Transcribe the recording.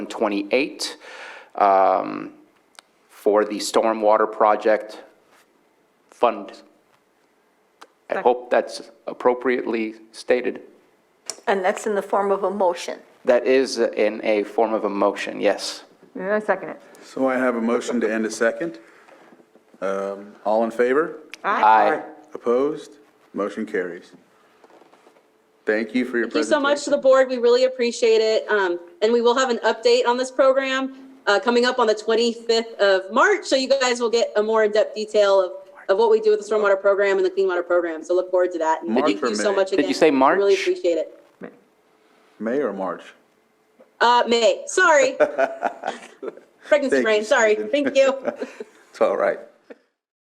28 um, for the stormwater project fund. I hope that's appropriately stated. And that's in the form of a motion. That is in a form of a motion, yes. I second it. So I have a motion to end a second. Um, All in favor? Aye. Opposed? Motion carries. Thank you for your Thank you so presentation. much to the board. We really appreciate it. Um, and we will have an update on this program, uh, coming up on the 25th of March. So you guys will get a more in-depth detail of, of what we do with the stormwater program and the clean water program. So look forward to that. And March thank or you so May? much Did you again. say We Really March? appreciate it. May or March? Uh, May, sorry. Pregnancy Thank you, brain, sorry. Susan. Thank you. It's all right.